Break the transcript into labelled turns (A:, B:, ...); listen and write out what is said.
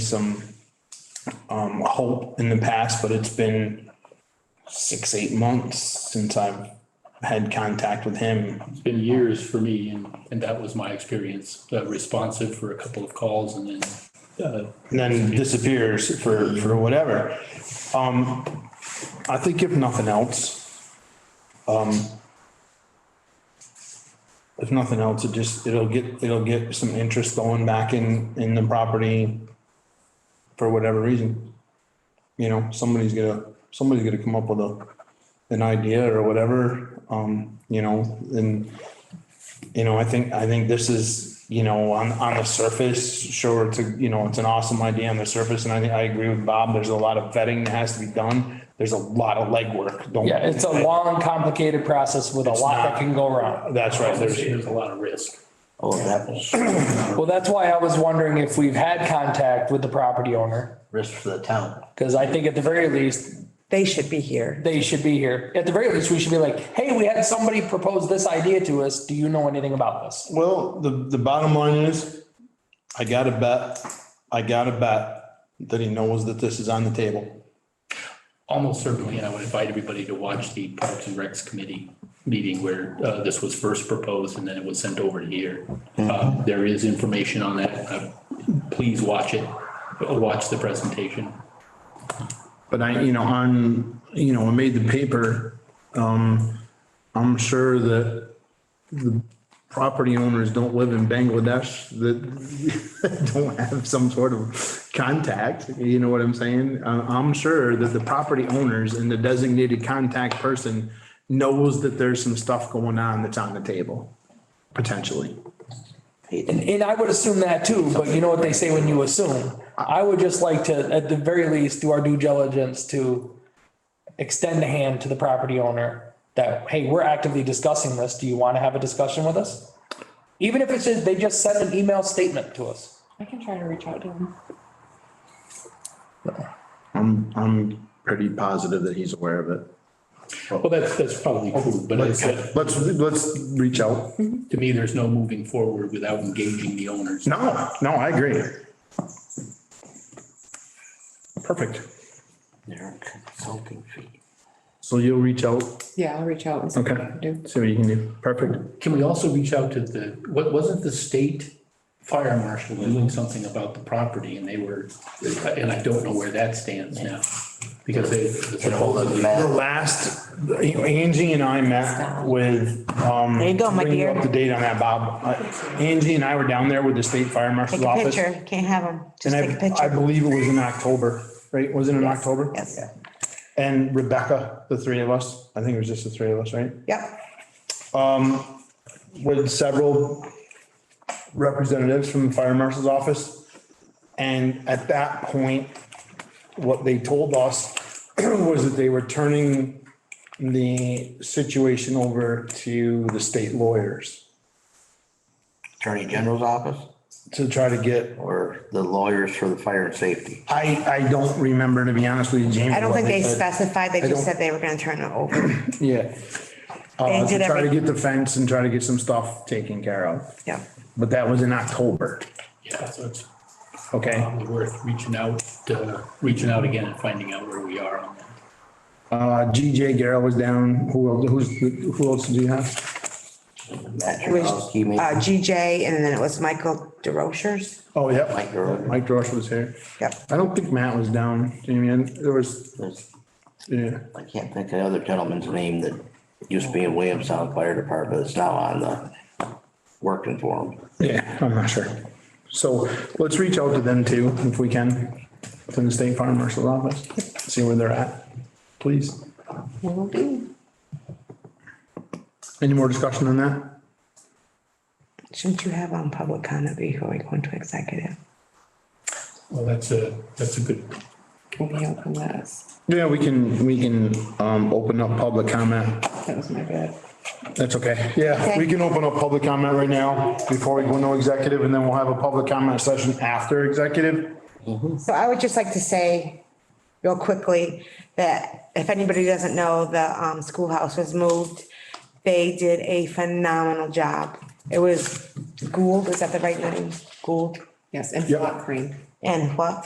A: some um, hope in the past, but it's been six, eight months since I've had contact with him.
B: It's been years for me and, and that was my experience, uh, responsive for a couple of calls and then, uh,
A: and then disappears for, for whatever. Um, I think if nothing else, um, if nothing else, it just, it'll get, it'll get some interest going back in, in the property for whatever reason. You know, somebody's gonna, somebody's gonna come up with a, an idea or whatever, um, you know, and you know, I think, I think this is, you know, on, on the surface, sure, it's a, you know, it's an awesome idea on the surface, and I think, I agree with Bob, there's a lot of vetting that has to be done. There's a lot of legwork. Don't-
C: Yeah, it's a long, complicated process with a lot that can go wrong.
A: That's right,
B: there's,
A: there's,
B: there's a lot of risk.
D: Oh, that was
C: Well, that's why I was wondering if we've had contact with the property owner,
D: risk for the town.
C: because I think at the very least,
E: They should be here.
C: they should be here. At the very least, we should be like, hey, we had somebody propose this idea to us. Do you know anything about this?
A: well, the, the bottom line is, I gotta bet, I gotta bet that he knows that this is on the table.
B: Almost certainly, I would invite everybody to watch the Parks and Recs Committee meeting where uh, this was first proposed and then it was sent over to here. Uh, There is information on that. Uh, Please watch it, Uh, watch the presentation.
A: But I, you know, on, you know, I made the paper, um, I'm sure that the property owners don't live in Bangladesh that don't have some sort of contact, you know what I'm saying? Uh, I'm sure that the property owners and the designated contact person knows that there's some stuff going on that's on the table, potentially.
C: And, and I would assume that too, but you know what they say when you assume. I would just like to, at the very least, do our due diligence to extend a hand to the property owner that, hey, we're actively discussing this. Do you want to have a discussion with us? Even if it's just, they just send an email statement to us.
F: I can try to reach out to him.
A: I'm, I'm pretty positive that he's aware of it.
B: Well, that's, that's probably true, but it's, uh,
A: Let's, let's reach out.
B: to me, there's no moving forward without engaging the owners.
A: No, no, I agree. Perfect.
D: Their consulting fee.
A: So you'll reach out,
F: Yeah, I'll reach out and see what I can do.
A: see what you can do. Perfect.
B: Can we also reach out to the, what, wasn't the state fire marshal doing something about the property and they were, and I don't know where that stands now. Because they supposedly,
A: The
D: Matt,
A: last, Angie and I met with, um.
E: There you go, my
A: bring
E: dear.
A: Up to date on that, Bob. Uh, Angie and I were down there with the state fire
E: Take
A: marshal's
E: a
A: office.
E: picture. Can't have them.
A: And
E: Just take a
A: I, I
E: picture.
A: believe it was in October, right? Was it in October?
E: Yes.
A: And Rebecca, the three of us, I think it was just the three of us, right?
E: Yep.
A: Um, with several representatives from the fire marshal's office. And at that point, what they told us was that they were turning the situation over to the state lawyers
D: Attorney General's office
A: to try to get,
D: or the lawyers for the fire and safety?
A: I, I don't remember, to be honest with you, James.
E: I don't
A: what
E: think they
A: said.
E: specified. They
A: I
E: just
A: don't-
E: said they were gonna turn it over.
A: Yeah. Uh,
E: They
A: to
E: did
A: try to
E: every-
A: get the fence and try to get some stuff taken care of.
E: Yeah.
A: But that was in October,
B: yeah, so it's
A: okay?
B: probably worth reaching out, uh, reaching out again and finding out where we are on that.
A: Uh, GJ Garrett was down. Who else, who's, who else do you have?
D: Matt
E: It was
D: Jaworski, maybe?
E: uh, GJ and then it was Michael DeRochers.
A: Oh, yep.
D: Mike Gerard.
A: Mike Dorsch was here.
E: Yep.
A: I don't think Matt was down, Jamie. And There was,
D: There's-
A: yeah,
D: I can't think of the other gentleman's name that used to be in Williamstown Fire Department that's now on the working for him.
A: yeah, I'm not sure. So let's reach out to them too, if we can, to the state farm marshal's office, see where they're at, please. Any more discussion on that?
E: Shouldn't you have on public comment before we go into executive?
B: Well, that's a, that's a good,
F: Will we open this?
A: Yeah, we can, we can, um, open up public comment.
F: That was my bad.
A: That's okay. Yeah, we
E: Okay.
A: can open up public comment right now before we go into executive and then we'll have a public comment session after executive.
E: So I would just like to say real quickly that if anybody doesn't know, the um, schoolhouse was moved. They did a phenomenal job. It was Gould, is that the right name? Gould
F: Yes, and
A: Yep.
F: Flat Creek.
E: and what?